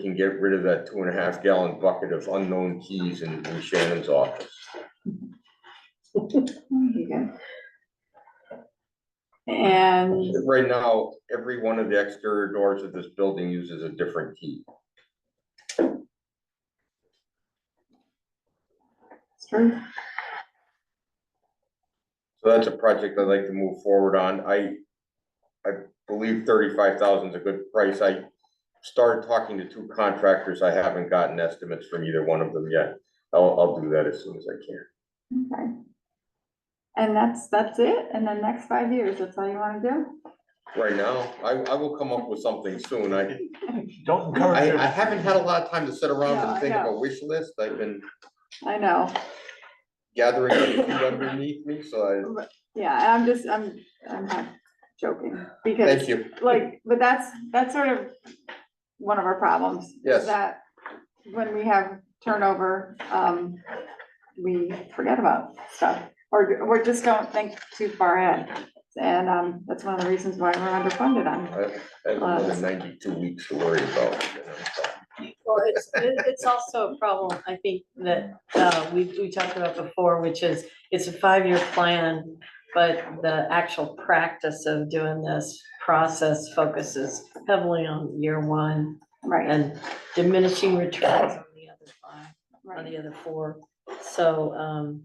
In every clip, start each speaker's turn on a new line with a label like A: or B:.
A: can get rid of that two and a half gallon bucket of unknown keys in in Shannon's office.
B: And
A: Right now, every one of the exterior doors of this building uses a different key. So that's a project I'd like to move forward on. I, I believe thirty-five thousand is a good price. I started talking to two contractors. I haven't gotten estimates from either one of them yet. I'll, I'll do that as soon as I can.
B: Okay. And that's, that's it, and then next five years, that's all you wanna do?
A: Right now, I, I will come up with something soon. I,
C: Don't encourage
A: I,
C: her.
A: I haven't had a lot of time to sit around
B: No, I
A: and think of a
B: know.
A: wish list. I've been
B: I know,
A: gathering it underneath me, so
B: yeah, and I'm just, I'm, I'm not joking,
A: I,
B: because
A: thank you.
B: like, but that's, that's sort of one of our problems. is
A: Yes.
B: That when we have turnover, um, we forget about stuff, or, or just don't think too far ahead. And, um, that's one of the reasons why we're underfunded on,
A: I I have another ninety-two weeks to worry about. you know, so.
D: Well, it's, it- it's also a problem, I think, that, uh, we, we talked about before, which is, it's a five-year plan, but the actual practice of doing this process focuses heavily on year one
B: right,
D: and diminishing returns on the other five, on
B: right,
D: the other four. So, um,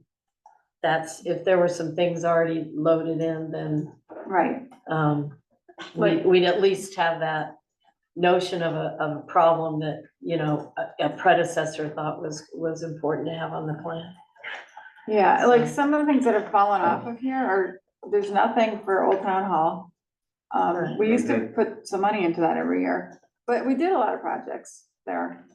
D: that's, if there were some things already loaded in, then,
B: right,
D: um, we,
B: Like-
D: we'd at least have that notion of a, of a problem that, you know, a- a predecessor thought was, was important to have on the plan.
B: yeah, like, some of the things that have fallen off of here are, there's nothing for Old Town Hall. Um, we used to put some money into that every year, but we did a lot of projects there.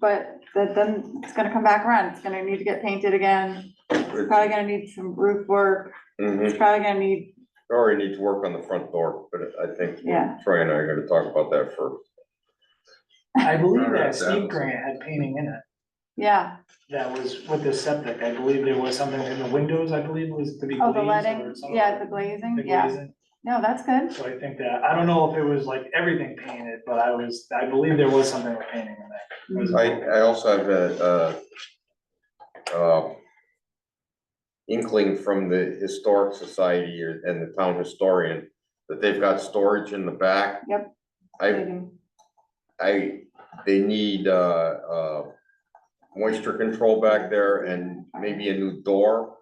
B: But that, then it's gonna come back around, it's gonna need to get painted again, it's probably gonna need some roof work,
A: Mhm.
B: it's probably gonna need,
A: Or need to work on the front door, but I think
B: yeah,
A: Troy and I are gonna talk about that first.
C: I believe
E: Alright,
C: that
E: that
C: Steve
E: was-
C: Grant had painting in it.
B: yeah,
C: That was with the septic. I believe there was something in the windows, I believe was to be
B: oh,
C: glazed
B: the
C: or
B: letting,
C: something.
B: yeah, the glazing,
C: The
B: yeah,
C: glazing.
B: no, that's good,
C: So I think that, I don't know if it was like everything painted, but I was, I believe there was something with painting in there. It was-
A: I, I also have a, uh, uh, inkling from the Historic Society or- and the town historian that they've got storage in the back.
B: Yep.
A: I, I, they need, uh, uh, moisture control back there and maybe a new door.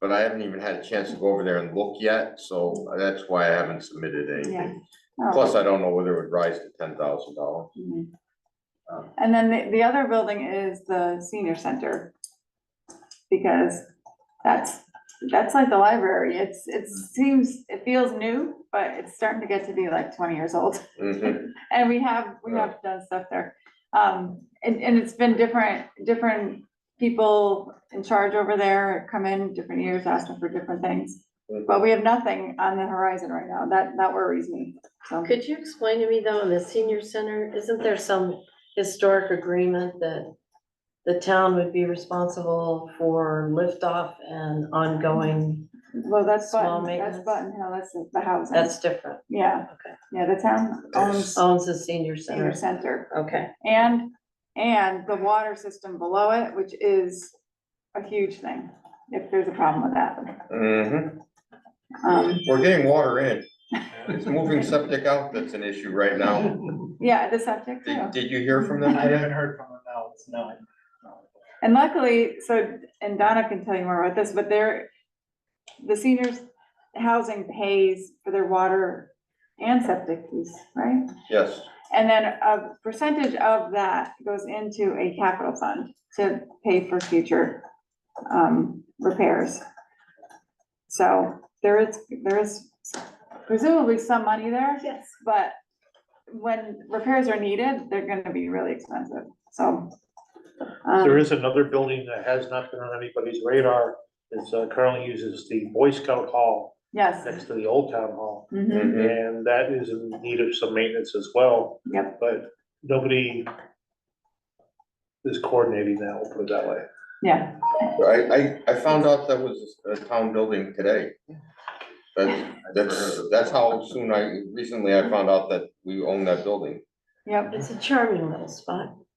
A: But I haven't even had a chance to go over there and look yet, so that's why I haven't submitted
B: yeah.
A: anything.
B: Oh.
A: Plus, I don't know whether it would rise to ten thousand dollars.
B: Mhm.
A: Um,
B: And then the, the other building is the senior center. Because that's, that's like the library, it's, it seems, it feels new, but it's starting to get to be like twenty years old.
A: Mm-hmm.
B: And we have, we have done stuff there. Um, and, and it's been different, different people in charge over there come in different years, asking for different things.
A: Mhm.
B: But we have nothing on the horizon right now, that, that worries me, so.
D: Could you explain to me though, in the senior center, isn't there some historic agreement that the town would be responsible for liftoff and ongoing,
B: Well, that's
D: Small
B: Button, that's
D: maintenance.
B: Button Hill, that's the housing.
D: that's different,
B: Yeah,
D: okay.
B: yeah, the town owns
D: Owns the senior
B: senior
D: center,
B: center
D: okay.
B: and, and the water system below it, which is a huge thing, if there's a problem with that.
A: Mhm.
B: Um,
A: We're getting water in. It's moving septic out that's an issue right now.
B: yeah, the septic too.
A: Did, did you hear from
C: I
A: them? today?
C: haven't heard from him now, it's no.
B: And luckily, so, and Donna can tell you more about this, but they're, the seniors housing pays for their water and septic fees, right?
A: Yes,
B: And then a percentage of that goes into a capital fund to pay for future um, repairs. So there is, there is presumably some money there,
D: Yes.
B: but when repairs are needed, they're gonna be really expensive, so. um,
F: There is another building that has not been on anybody's radar, it's uh, currently uses the Boy Scout Hall
B: Yes.
F: next to the Old Town Hall.
B: Mhm.
A: Mhm.
F: And that is in need of some maintenance as well.
B: Yep.
F: But nobody is coordinating that, we'll put it that way.
B: Yeah,
A: I, I, I found out that was a town building today. That's, that's, that's how soon I, recently I found out that we own that building.
B: Yep.
D: It's a charming little spot.